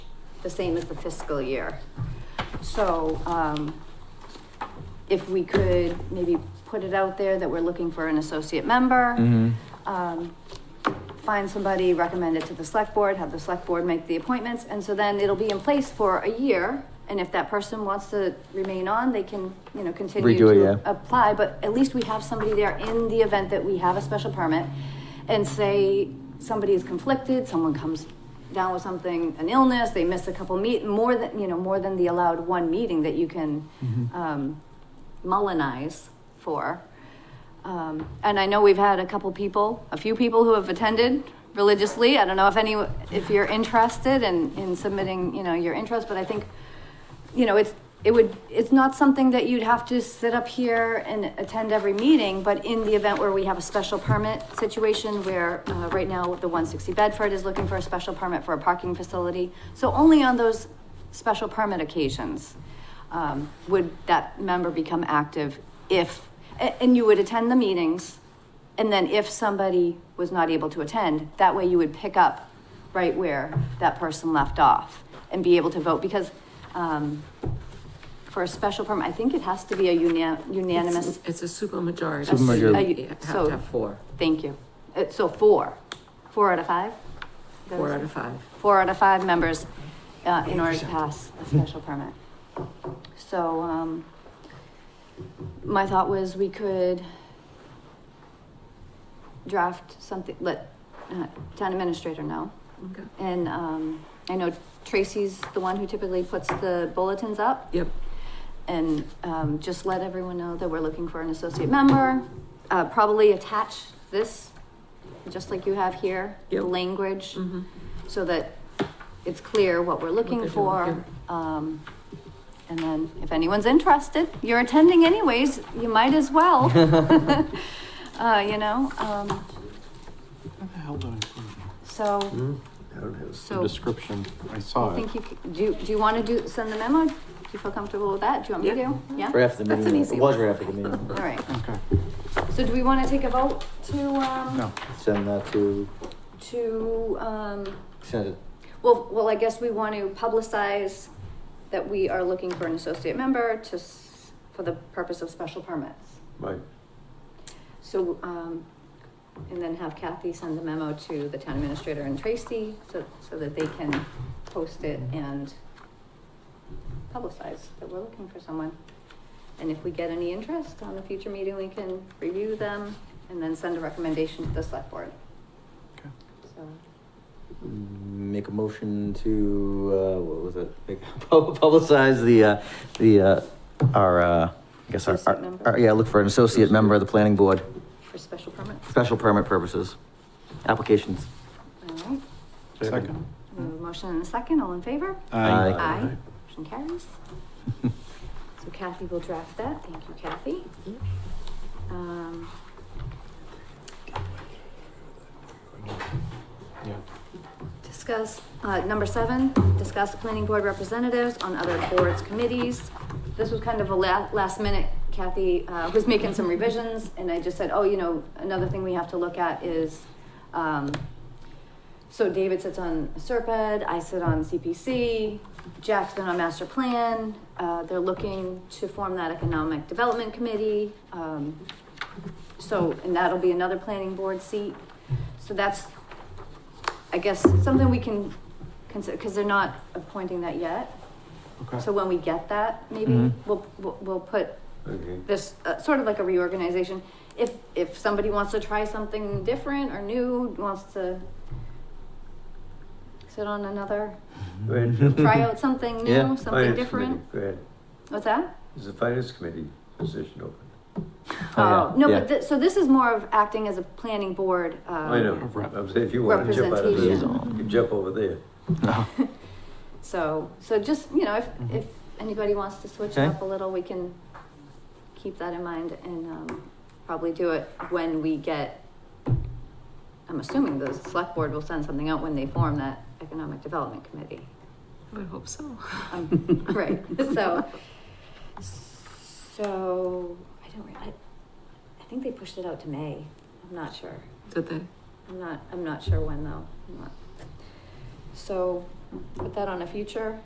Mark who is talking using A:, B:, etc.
A: the same as the fiscal year. So, um, if we could maybe put it out there that we're looking for an associate member,
B: Mhm.
A: um, find somebody, recommend it to the select board, have the select board make the appointments, and so then it'll be in place for a year. And if that person wants to remain on, they can, you know, continue
B: Redo it,
A: to
B: yeah.
A: apply, but at least we have somebody there in the event that we have a special permit. And say somebody is conflicted, someone comes down with something, an illness, they miss a couple meet, more than, you know, more than the allowed one meeting that you can,
B: Mm-hmm.
A: um, mullinize for. Um, and I know we've had a couple people, a few people who have attended religiously. I don't know if any, if you're interested in, in submitting, you know, your interest, but I think, you know, it's, it would, it's not something that you'd have to sit up here and attend every meeting, but in the event where we have a special permit situation where, uh, right now, the one sixty Bedford is looking for a special permit for a parking facility. So only on those special permit occasions, um, would that member become active if, a- and you would attend the meetings. And then if somebody was not able to attend, that way you would pick up right where that person left off and be able to vote because, um, for a special permit, I think it has to be a unia- unanimous,
C: It's a super majority.
B: Supermajority.
A: A-
C: You have
A: so-
C: to have four,
A: thank you. Uh, so four, four out of five?
C: four out of five.
A: Four out of five members, uh, in order to pass a special permit. So, um, my thought was we could draft something, let, uh, town administrator know.
C: Okay.
A: And, um, I know Tracy's the one who typically puts the bulletins up.
C: Yep,
A: And um, just let everyone know that we're looking for an associate member. Uh, Probably attach this, just like you have here, the
C: Yep.
A: language,
C: mhm.
A: so that it's clear what we're
C: they're
A: looking
C: doing,
A: for. Um, And then if anyone's interested, you're attending anyways, you might as well. Uh, You know, um,
D: How the hell do I prove
A: so,
B: The
A: so
B: Description.
D: it? I saw
A: I
D: it.
A: think you, c- do you, do you want to do, send the memo? Do you feel comfortable with that? Do you want me to? Yeah?
B: Right after the
A: That's
B: meeting.
A: an
B: It
A: easy
B: was
A: one.
B: right after the meeting.
A: All right.
D: Okay,
A: So do we want to take a vote to, um?
D: no.
B: Send that to,
A: to, um,
B: send it.
A: well, well, I guess we want to publicize that we are looking for an associate member to, s- for the purpose of special permits.
E: Right,
A: So, um, and then have Kathy send the memo to the town administrator and Tracy so, so that they can post it and publicize that we're looking for someone. And if we get any interest on a future meeting, we can review them and then send a recommendation to the select board.
D: Okay.
A: So,
B: Make a motion to, uh, what was it? Make- pub- Publicize the, uh, the, uh, our, uh, I guess our-
A: Associate
B: our,
A: member.
B: our, yeah, look for an associate member of the planning board,
A: for special permits.
B: special permit purposes, applications.
A: All right,
D: Second?
A: we have a motion and a second, all in favor?
B: Aye.
A: Aye. Motion carries. So Kathy will draft that, thank you Kathy. Um,
D: Yeah.
A: Discuss, uh, number seven, discuss planning board representatives on other boards, committees. This was kind of a la- last minute, Kathy, uh, was making some revisions, and I just said, oh, you know, another thing we have to look at is, um, so David sits on Serped, I sit on CPC, Jeff's been on master plan, uh, they're looking to form that economic development committee, um, so, and that'll be another planning board seat. So that's, I guess, something we can consider, because they're not appointing that yet. So
D: Okay.
A: when we get that, maybe
B: Mhm.
A: we'll, we'll, we'll put
E: okay.
A: this, uh, sort of like a reorganization. If, if somebody wants to try something different or new, wants to sit on another,
E: Go ahead, Jim.
A: try out something
B: Mm-hmm. Yeah.
A: new, something
E: Finance
A: different.
E: committee, Go ahead.
A: What's that?
E: Is the finance committee position open?
B: yeah,
A: Oh, no,
B: yeah.
A: but, thi- so this is more of acting as a planning board, uh.
E: I know,
D: Rep-
E: I'm saying if you want to jump out of there,
A: Representation.
E: you can jump over there.
A: So, so just, you know, if, if anybody wants to switch it
B: Okay.
A: up a little, we can keep that in mind and, um, probably do it when we get, I'm assuming the select board will send something out when they form that economic development committee.
C: I would hope so.
A: Um, Right, so, so, I don't, re- I, I think they pushed it out to May. I'm not sure.
C: Did they?
A: I'm not, I'm not sure when though. I'm not- So, put that on a future